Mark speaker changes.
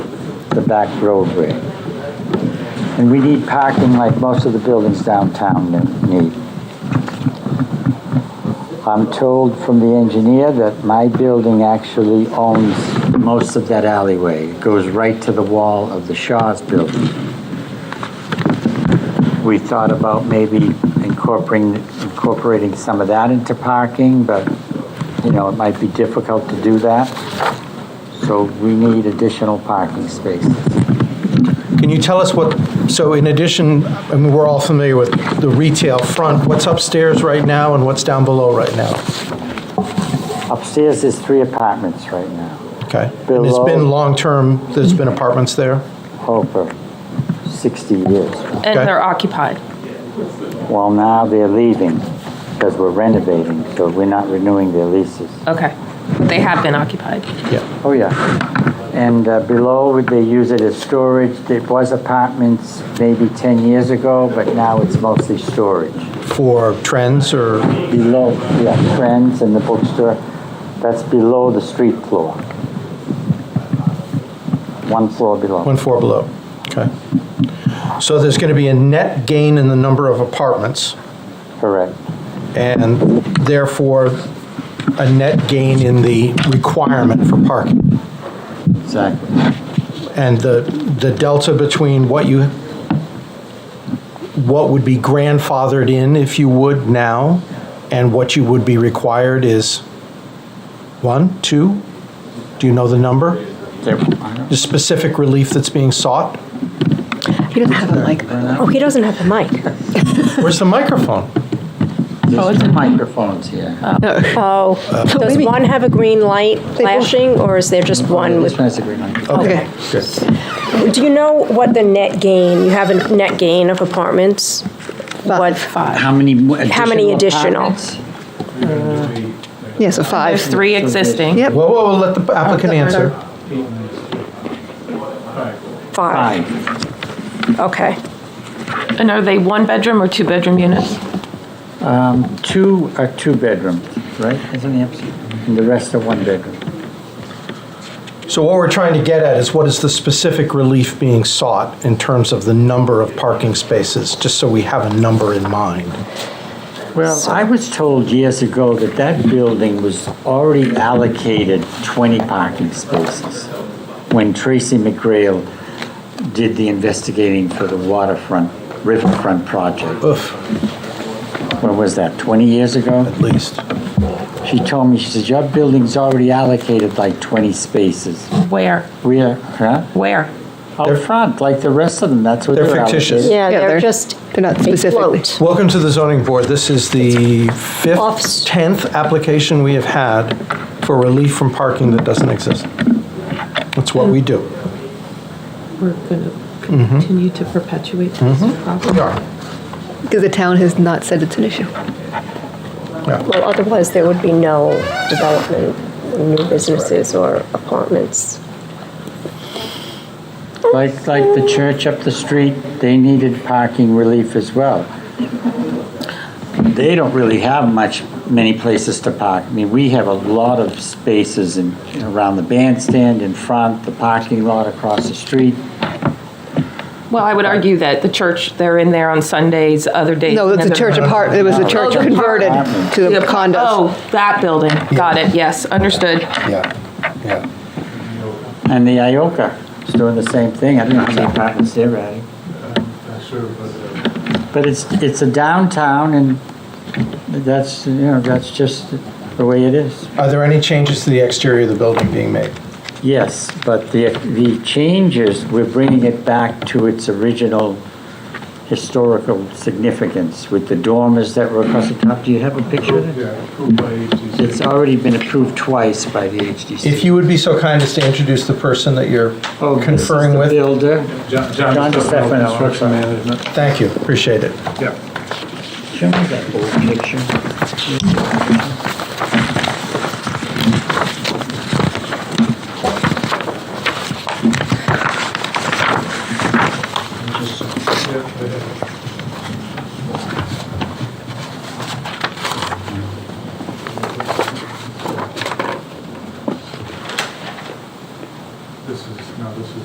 Speaker 1: the back roadway. And we need parking like most of the buildings downtown ne- need. I'm told from the engineer that my building actually owns most of that alleyway. It goes right to the wall of the Shaw's building. We thought about maybe incorporating, incorporating some of that into parking, but, you know, it might be difficult to do that. So we need additional parking spaces.
Speaker 2: Can you tell us what, so in addition, I mean, we're all familiar with the retail front, what's upstairs right now and what's down below right now?
Speaker 1: Upstairs is three apartments right now.
Speaker 2: Okay. And it's
Speaker 1: Below.
Speaker 2: been long-term, there's been apartments there?
Speaker 1: Over 60 years.
Speaker 3: And
Speaker 2: Okay.
Speaker 3: they're occupied.
Speaker 1: Well, now they're leaving because we're renovating, so we're not renewing their leases.
Speaker 3: Okay. But they have been occupied.
Speaker 2: Yeah.
Speaker 1: Oh, yeah. And uh, below, they use it as storage. It was apartments maybe 10 years ago, but now it's mostly storage.
Speaker 2: For trends or,
Speaker 1: Below, yeah, Friends and the bookstore, that's below the street floor. One floor below.
Speaker 2: one floor below? Okay. So there's going to be a net gain in the number of apartments
Speaker 1: Correct.
Speaker 2: and therefore a net gain in the requirement for parking.
Speaker 1: Exactly.
Speaker 2: And the, the delta between what you, what would be grandfathered in, if you would, now, and what you would be required is one, two? Do you know the number? The specific relief that's being sought?
Speaker 4: He doesn't have a mic. Oh, he doesn't have a mic.
Speaker 2: Where's the microphone?
Speaker 1: There's two microphones here.
Speaker 4: Oh, does
Speaker 5: Maybe-
Speaker 4: one have a green light flashing, or is there just one
Speaker 1: This
Speaker 4: with?
Speaker 1: one is a green microphone.
Speaker 2: Okay. good.
Speaker 4: Do you know what the net gain, you have a net gain of apartments? What?
Speaker 3: Five.
Speaker 1: How many mo- additional?
Speaker 4: How many additional?
Speaker 1: apartments?
Speaker 5: Yeah, so five.
Speaker 3: There's three existing.
Speaker 5: Yep.
Speaker 2: Whoa, whoa, whoa, let the applicant answer.
Speaker 4: Five.
Speaker 1: Five.
Speaker 4: Okay.
Speaker 3: And are they one bedroom or two bedroom units?
Speaker 1: Two are two bedrooms, right? Isn't it? And the rest are one bedroom.
Speaker 2: So what we're trying to get at is what is the specific relief being sought in terms of the number of parking spaces, just so we have a number in mind?
Speaker 1: Well, I was told years ago that that building was already allocated 20 parking spaces when Tracy McGrail did the investigating for the waterfront, riverfront project.
Speaker 2: Oof,
Speaker 1: When was that, 20 years ago?
Speaker 2: at least.
Speaker 1: She told me, she says, your building's already allocated like 20 spaces.
Speaker 3: Where?
Speaker 1: Where, huh?
Speaker 3: Where?
Speaker 1: Out front, like the rest of them, that's what
Speaker 2: They're
Speaker 1: they're
Speaker 2: fictitious.
Speaker 1: allocated.
Speaker 4: Yeah,
Speaker 5: Yeah,
Speaker 4: they're
Speaker 5: they're-
Speaker 4: just.
Speaker 5: they're not
Speaker 4: they
Speaker 5: specific.
Speaker 4: float.
Speaker 2: Welcome to the zoning board. This is the fifth,
Speaker 4: Office.
Speaker 2: 10th application we have had for relief from parking that doesn't exist. That's what we do.
Speaker 6: we're going to
Speaker 5: Mm-hmm.
Speaker 6: continue to perpetuate this problem.
Speaker 2: We are.
Speaker 5: Because the town has not said it's an issue.
Speaker 4: Well, otherwise there would be no development, new businesses or apartments.
Speaker 1: Like, like the church up the street, they needed parking relief as well. They don't really have much, many places to park. I mean, we have a lot of spaces in, around the bandstand, in front, the parking lot across the street.
Speaker 3: Well, I would argue that the church, they're in there on Sundays, other days.
Speaker 5: No,
Speaker 3: and
Speaker 5: that's a
Speaker 3: other-
Speaker 5: church apart, it was a church
Speaker 3: the part-
Speaker 5: converted to
Speaker 3: Yeah,
Speaker 5: condos.
Speaker 3: Oh, that building. Got it. Yes, understood.
Speaker 2: Yeah, yeah.
Speaker 1: And the Ioka is doing the same thing. I don't know how many apartments they're adding. But it's, it's a downtown and that's, you know, that's just the way it is.
Speaker 2: Are there any changes to the exterior of the building being made?
Speaker 1: Yes, but the, the changes, we're bringing it back to its original historical significance with the dormers that were across the top. Do you have a picture of it?
Speaker 7: Yeah, approved by agencies.
Speaker 1: It's already been approved twice by the HDC.
Speaker 2: If you would be so kind as to introduce the person that you're
Speaker 1: Oh, this is
Speaker 2: conferring
Speaker 1: the
Speaker 2: with.
Speaker 1: Builder.
Speaker 7: John
Speaker 1: John
Speaker 7: John
Speaker 1: DeStefano,
Speaker 7: Stefano, construction
Speaker 1: I'm sorry.
Speaker 7: management.
Speaker 2: Thank you, appreciate it.
Speaker 7: Yeah.
Speaker 1: Show me that old picture.